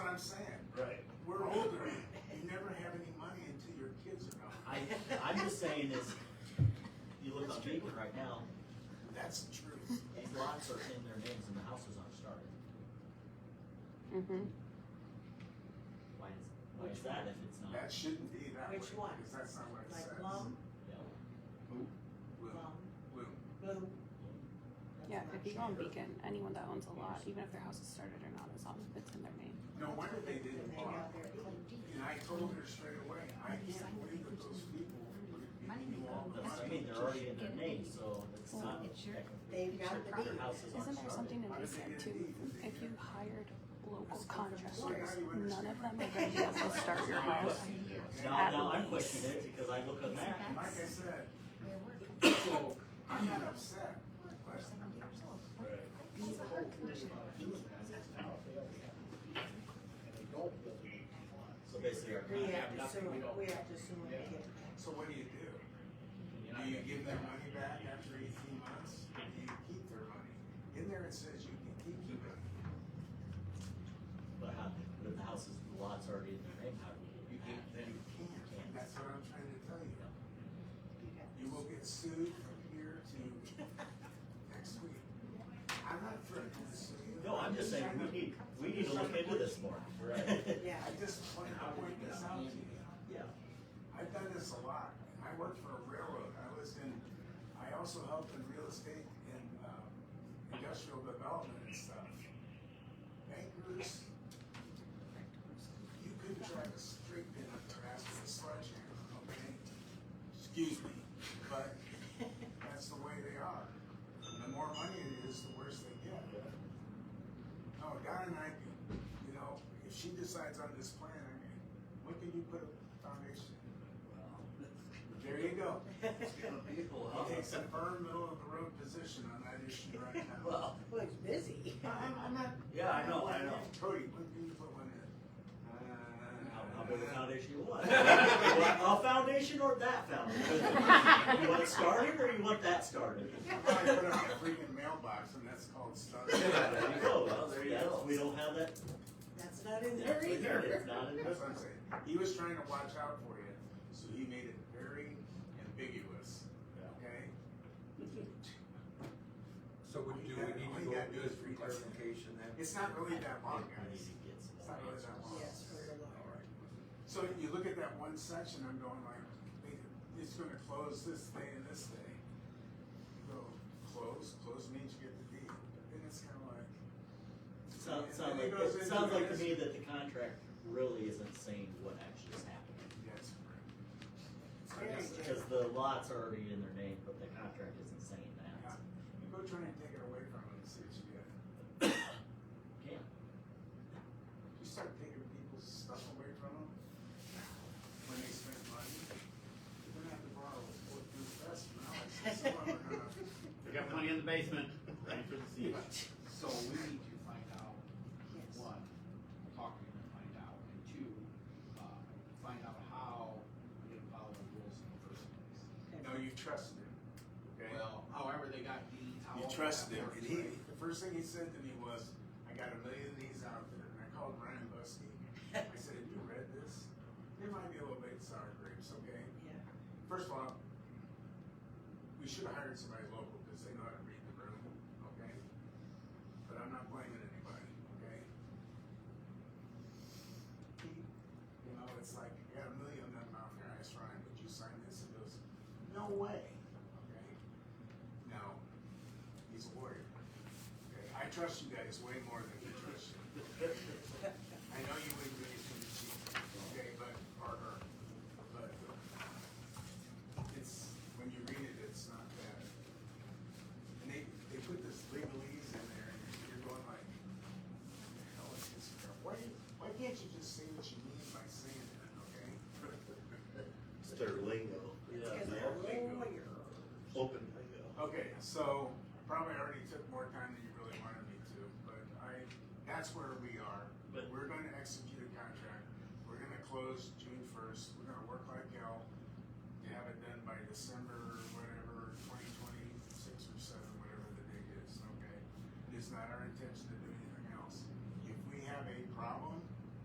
I'm just saying is, you look on paper right now, That's the truth. these lots are in their names and the houses aren't started. Mm-hmm. Why is, why is that if it's not? That shouldn't be that way. Which one? Because that's not what it Like says. Blum, Yeah. Will, Blum, will. Blue. Yeah, if you go on Beacon, anyone that owns a lot, even if their house is started or not, as long as it's in their name. No wonder they didn't They bother. got their claim deed. And I told her straight away, I can't believe that those people would be giving you all the That's, I money. mean, they're already in their names, so it's Well, not. it's your- technically- they've got the Their deed. houses aren't Isn't there something started. in this yet too? If you hired local contractors, none of them are gonna be able to start your house. Now, at now I'm least. questioning it because I look on that. And Like I said, Where we're so coming I'm not upset, from, but seventy years old. It's a heart condition. So basically, our We contract, have to assume, we have to assume we get so what do you do? Do you give their money back after eighteen months? Do you keep their money? In there it says you can keep your money. but how, but if the houses, the lots already in their name, how do we? You get can, it back? you can't. That's what I'm trying to tell you. You will get sued from here to next week. I'm not threatening to sue you. No, I'm just saying, we need, we need to look into this more. Right. Yeah, I just point, I point this out to you. Yeah. I've done this a lot. I worked for a railroad. I was in, I also helped in real estate and um, industrial development and stuff. Bankers, you couldn't drive a straight pin up their ass with a sledgehammer, okay? Excuse me, but that's the way they are. The more money it is, the worse they get. No, Donna and I, you know, if she decides on this plan, I mean, when can you put a foundation? There you go. He takes a firm middle of the road position on that issue right now. Well, well, it's busy. No, I'm, I'm not. Yeah, I know, Uh, I I'm not- know. Cody, when can you put one in? how, how big a foundation you want? a foundation or that foundation? you want it started or you want that started? I probably put it on a freaking mailbox and that's called stuff. There you go. Well, there you go. We don't have that. That's not in That's there right there. either. It's not in That's this. what I'm saying. He was trying to watch out for you, so he made it very ambiguous, okay? So what do we need to go do is for clarification then? It's not really that long, We need guys. to get some It's not really that long. Yes, for the law. So you look at that one section, I'm going like, wait, it's gonna close this day and this day. Go, close, close means you get the deed, but then it's kinda like. Sounds, sounds like, it sounds like to me that the contract really isn't saying what actually is happening. Yes. Very So good. Because the lots are already in their name, but the contract isn't saying that. you Go try and take it away from them and see what you get. Yeah. You start taking people's stuff away from them when they spend money. You're gonna have to borrow four through the best now, so some of them are gonna. We got money in the basement, ready for the siege. So we need to find out, Yes. one, talk to him and find out, and two, uh, find out how we didn't follow the rules in the first place. No, you trusted him, okay? Well, however they got deeds, how. You trusted him, and he, the first thing he said to me was, I got a million of these out there, and I called Ryan Buskey. I said, have you read this? They might be a little bit sour grapes, okay? Yeah. First of all, we should have hired somebody local, because they know how to read the room, okay? But I'm not blaming anybody, okay? You know, it's like, I got a million of them out there, I asked Ryan, would you sign this? He goes, no way, okay? Now, he's a warrior. Okay, I trust you guys way more than he trusts you. I know you wouldn't do anything to cheat, okay, but, or her, but it's, when you read it, it's not bad. And they, they put this legalese in there, and you're going like, "What the hell is this crap? Why, why can't you just say what you mean by saying that, okay? It's their lingo, It's Yeah. 'cause they're lawyer. open lingo. Okay, so I probably already took more time than you really wanted me to, but I, that's where we are. But- We're gonna execute a contract, we're gonna close June first, we're gonna work like hell to have it done by December, whatever, twenty twenty-six or seven, whatever the date is, okay? It's not our